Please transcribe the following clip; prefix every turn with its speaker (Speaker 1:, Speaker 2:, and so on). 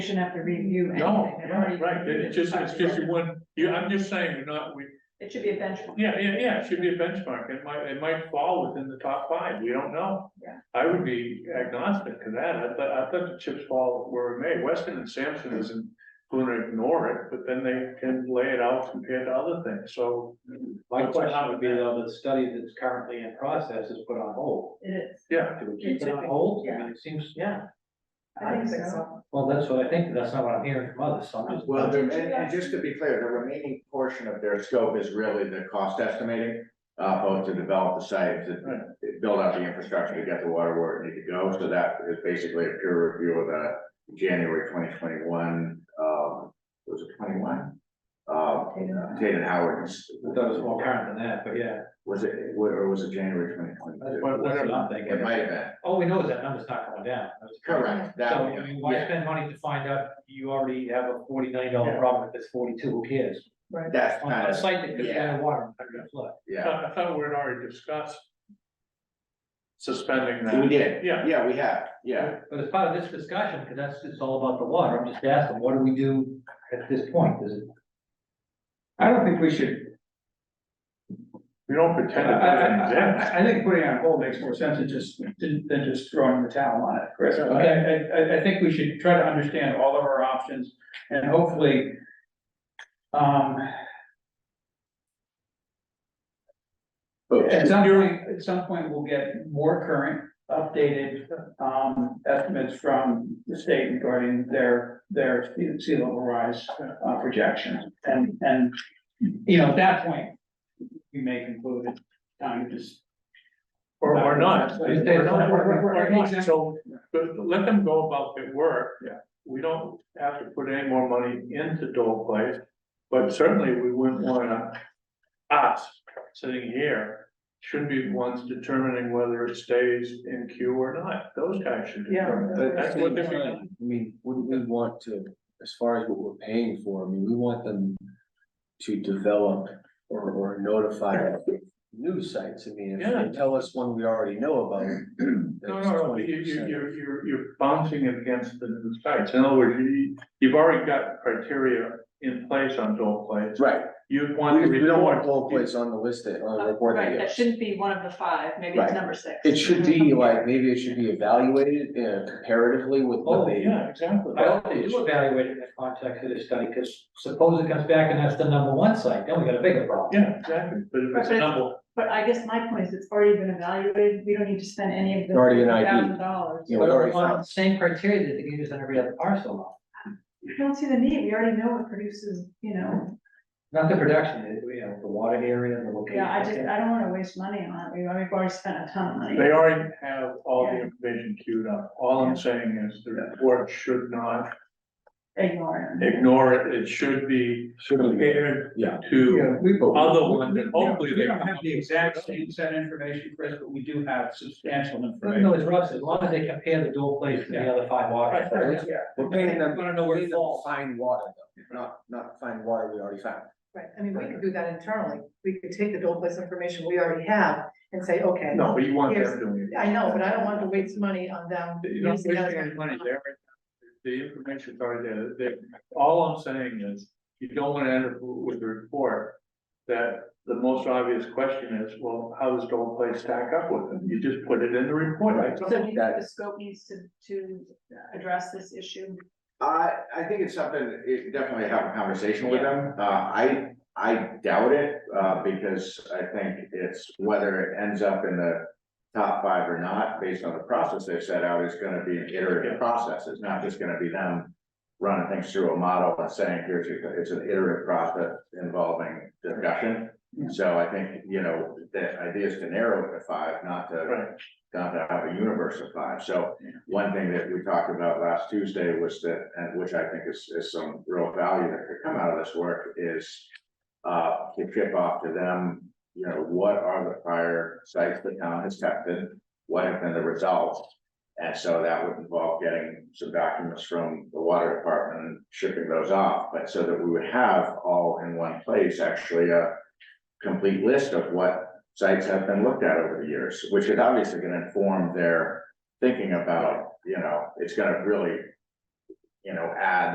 Speaker 1: You shouldn't have to review anything.
Speaker 2: No,
Speaker 1: They've
Speaker 2: right,
Speaker 1: already
Speaker 2: right,
Speaker 1: reviewed
Speaker 2: it's just, it's just one, you, I'm just saying, we're not, we,
Speaker 1: It should be a benchmark.
Speaker 2: yeah, yeah, yeah, it should be a benchmark, it might, it might fall within the top five, we don't know.
Speaker 1: Yeah.
Speaker 2: I would be agnostic to that, I thought, I thought the chips fall where it may, Weston and Sampson isn't gonna ignore it, but then they can lay it out compared to other things, so.
Speaker 3: My question would be though, the study that's currently in process is put on hold.
Speaker 1: It is.
Speaker 2: Yeah,
Speaker 3: Do we keep it on hold? I mean, it seems, yeah. Well, that's what I think, but that's not what I'm hearing from others, so I'm just.
Speaker 4: Well, the and and just to be clear, the remaining portion of their scope is really the cost estimating. Uh, both to develop the site, to
Speaker 2: Right.
Speaker 4: to build out the infrastructure to get the water where it needs to go, so that is basically a peer review of the January twenty twenty-one, um, was it twenty-one? Uh, Tate and Howard's,
Speaker 3: I thought it was more current than that, but yeah.
Speaker 4: was it, or was it January twenty twenty-two?
Speaker 3: That's what I'm thinking.
Speaker 4: It might have been,
Speaker 3: All we know is that number's not coming down. That's-
Speaker 4: correct,
Speaker 3: So,
Speaker 4: that,
Speaker 3: I mean, why
Speaker 4: yeah.
Speaker 3: spend money to find out you already have a forty million dollar
Speaker 2: Yeah.
Speaker 3: problem if it's forty-two, who cares?
Speaker 4: that's
Speaker 3: On a
Speaker 4: kind of,
Speaker 3: site that could be out of water, under the flood.
Speaker 2: I
Speaker 4: yeah,
Speaker 2: thought, I thought we had already discussed. Suspending
Speaker 4: we
Speaker 2: that,
Speaker 4: did,
Speaker 2: Yeah.
Speaker 4: yeah, we have, yeah,
Speaker 3: But as part of this discussion, because that's, it's all about the water, I'm just asking, what do we do at this point? Is it?
Speaker 5: I don't think we should,
Speaker 2: we don't
Speaker 5: I,
Speaker 2: pretend it
Speaker 5: I,
Speaker 2: doesn't
Speaker 5: I-
Speaker 2: exist.
Speaker 5: I, I think putting it on hold makes more sense than just, than just throwing the towel on it, Chris. I, I, I- I think we should try to understand all of our options and hopefully, um,
Speaker 4: But-
Speaker 5: at some point, at some point, we'll get more current, updated, um, estimates from the state regarding their, their sea- sea level rise, uh, projections. And, and, you know, at that point, we may conclude it's time to just
Speaker 2: Or, or not.
Speaker 5: Or not.
Speaker 2: Or not.
Speaker 5: Or- or-
Speaker 2: Or not.
Speaker 5: exactly.
Speaker 2: So, but let them go about their work.
Speaker 5: Yeah.
Speaker 2: We don't have to put any more money into Dole Place, but certainly we wouldn't wanna, us, sitting here, should be the ones determining whether it stays in queue or not. Those guys should determine.
Speaker 1: Yeah.
Speaker 2: that.
Speaker 5: uh,
Speaker 2: That's what they're.
Speaker 6: I mean, wouldn't we want to, as far as what we're paying for, I mean, we want them to develop or, or notify new sites, I mean, if
Speaker 2: Yeah.
Speaker 6: they tell us one we already know about.
Speaker 2: No,
Speaker 6: that's
Speaker 2: no, no, you, you,
Speaker 6: 20%.
Speaker 2: you're, you're, you're bouncing against the new sites. In other words, you, you've already got criteria in place on Dole Place.
Speaker 6: Right,
Speaker 2: You'd want to
Speaker 6: we, we don't want
Speaker 2: report. Uh,
Speaker 6: Dole Place on the list, that- on the report.
Speaker 1: Right,
Speaker 6: that
Speaker 1: that
Speaker 6: goes.
Speaker 1: shouldn't be one of the five, maybe it's
Speaker 6: Right.
Speaker 1: number six.
Speaker 6: It should be like, maybe it should be evaluated uh, comparatively with
Speaker 3: Oh,
Speaker 6: what they.
Speaker 2: Yeah, exactly.
Speaker 3: I hope they do evaluate it in the context of this study, because suppose it comes back and that's the number one site, then we got a bigger problem.
Speaker 2: Yeah, exactly, but if it's a
Speaker 1: Right, but-
Speaker 2: number,
Speaker 1: But I guess my point is, it's already been evaluated, we don't need to spend any of the.
Speaker 6: Already an ID.
Speaker 1: Thousand dollars.
Speaker 6: Yeah.
Speaker 3: But
Speaker 6: we already
Speaker 3: on
Speaker 6: found-
Speaker 3: the same criteria that they can use on every other parcel lot.
Speaker 1: We don't see the need, we already know what produces, you know,
Speaker 3: Not the production, you know, the water area, the location.
Speaker 1: yeah, I just, I don't wanna waste money on it, we've already we've already spent a ton of money.
Speaker 2: they already have all the
Speaker 1: Yeah.
Speaker 2: information queued up, all I'm saying is the report should not
Speaker 1: Ignore it.
Speaker 2: ignore it, it should be compared
Speaker 6: Yeah.
Speaker 2: to
Speaker 5: we vote.
Speaker 2: other ones, and hopefully
Speaker 5: We
Speaker 2: they.
Speaker 5: don't have the exact same set of information, Chris, but we do have substantial
Speaker 3: Even
Speaker 5: information.
Speaker 3: though it's Rob said, as long as they compare the dual place to the other five water.
Speaker 6: Right.
Speaker 3: sites,
Speaker 6: We're paying them,
Speaker 3: Wanna know where it
Speaker 6: paying them
Speaker 3: falls.
Speaker 6: fine water though, not, not fine water we already found.
Speaker 7: Right, I mean, we could do that internally, we could take the Dole Place information we already have and say, okay,
Speaker 2: No, but you want them doing it.
Speaker 7: I know, but I don't want to waste money on them.
Speaker 2: You don't
Speaker 7: using
Speaker 2: waste
Speaker 7: that
Speaker 2: any money
Speaker 7: information.
Speaker 2: there, the information's already there, They- all I'm saying is, you don't wanna end up with a report. That the most obvious question is, well, how does Dole Place stack up with them, you just put it in the report, right?
Speaker 1: So do you think the scope needs to, to address this issue?
Speaker 4: I, I think it's something, that it definitely have a conversation with them, uh, I, I doubt it, uh, because I think it's whether it ends up in the. Top five or not, based on the process they set out, is gonna be an
Speaker 2: Yeah.
Speaker 4: iterative process, it's not just gonna be them. Running things through a model and saying, here's, your- it's an iterative process involving discussion.
Speaker 5: Yeah.
Speaker 4: So I think, you know, the idea is to narrow it to five, not to
Speaker 2: Right.
Speaker 4: not to have a universe of five, so one thing that we talked about last Tuesday was that, and which I think is, is some real value that could come out of this work is. Uh, to kick off to them, you know, what are the prior sites the town has tested, what have been the results? And so that would involve getting some documents from the water department and shipping those off, but so that we would have all in one place, actually, a. Complete list of what sites have been looked at over the years, which is obviously gonna inform their thinking about, you know, it's gonna really. you know, add